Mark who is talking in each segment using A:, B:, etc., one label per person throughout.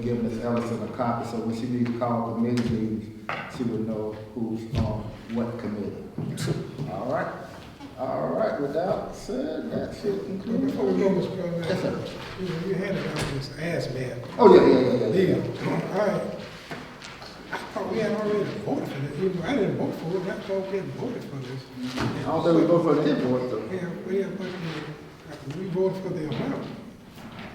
A: give Ms. Ellison a copy, so when she needs to call committee meetings, she would know who's on what committee. All right, all right, without said, that's it. including-
B: Before we go, Mr. President.
A: Yes, sir.
B: You know, you handed out this hazmat
A: Oh, yeah, yeah, yeah, yeah,
B: deal. I, I thought we had already voted for this. Even- I didn't vote for it, that's why we hadn't voted for this.
A: yeah. I don't think we go for the invoice, though.
B: Yeah, we had, but uh, we voted for the amount,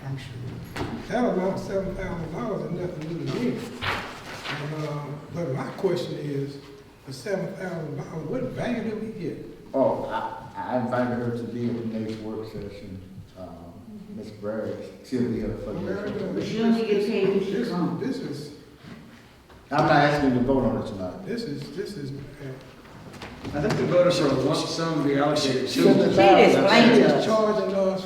B: I'm sure. That amount, seven thousand dollars, is nothing new to me. And, uh, But my question is, for seven thousand dollars, what value did we get?
A: Oh, I, I invited her to be at the next work session, um, Ms. Bragg, she'll be here for the next one.
B: America,
C: She only get paid when she
B: this-
C: come.
B: This is,
A: I'm not asking you to vote on it tonight.
B: this is, this is, uh,
D: I think the voter for a lump sum to be allocated
A: She
D: to.
C: explained
B: she
C: Thank
B: is
C: you.
B: charging us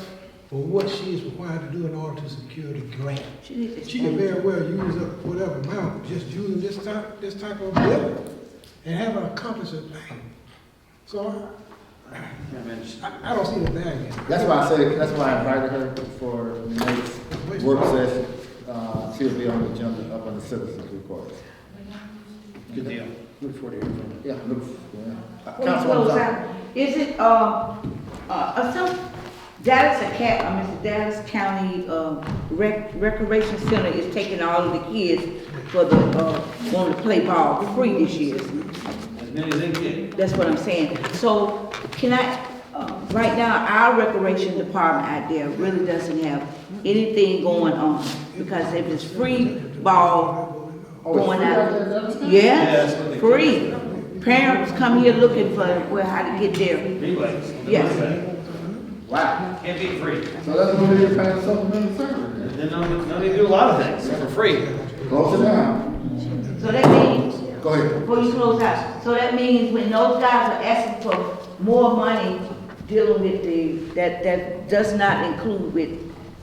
B: for what she is required to do in order to secure the grant.
C: She needs to
B: She can very well use up whatever amount, just using this type, this type of bill, and haven't accomplished a thing. So
D: I mean, it's-
B: I, I don't see the value.
A: That's why I said, that's why I invited her for the next work session. Uh, she'll be on the agenda up on the citizens report.
D: Good deal. Look forward to hearing from you.
A: Yeah, look, yeah. Uh,
C: When you
A: Councilwoman
C: close
A: Thompson.
C: out, is it, uh, uh, uh, some, Dallas, Aca- I mean, Dallas County, uh, Rec- Recreation Center is taking all of the kids for the, uh, wanting to play ball free this year.
D: As many as they get.
C: That's what I'm saying. So can I, uh, right now, our recreation department out there really doesn't have anything going on because if it's free ball
A: Oh, it's
C: going
A: free out there,
C: out.
A: that's it?
D: Yeah, that's
C: Yes,
D: what they-
C: free. Parents come here looking for, well, how to get there.
D: Rebates. the money
C: Yes.
D: back.
A: Wow,
D: Can't be free.
A: so that's what they're paying supplemental service.
D: Then they'll, they'll do a lot of things for free.
A: Close it down.
C: So that means,
A: Go ahead.
C: before you close out, so that means when those guys are asking for more money dealing with the, that, that does not include with,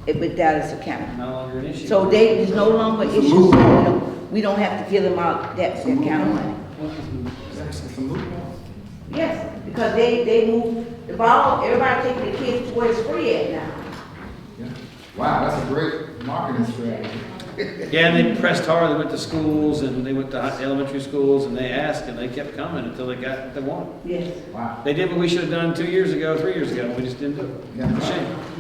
C: with Dallas County.
D: No longer an issue.
C: So they is no longer
A: a
C: issues,
A: move.
C: we don't, we don't have to give them out that, that
A: It's a
C: kind of
A: move.
C: money.
A: It's a move.
C: Yes, because they, they move the ball, everybody taking the kids to where it's free at now.
A: Yeah. Wow, that's a great marketing strategy.
D: Yeah, and they pressed hard, they went to schools, and they went to hi- elementary schools, and they asked, and they kept coming until they got what they wanted.
C: Yes.
A: Wow.
D: They did what we should have done two years ago, three years ago, and we just didn't do it.
A: Yeah.
D: Shame.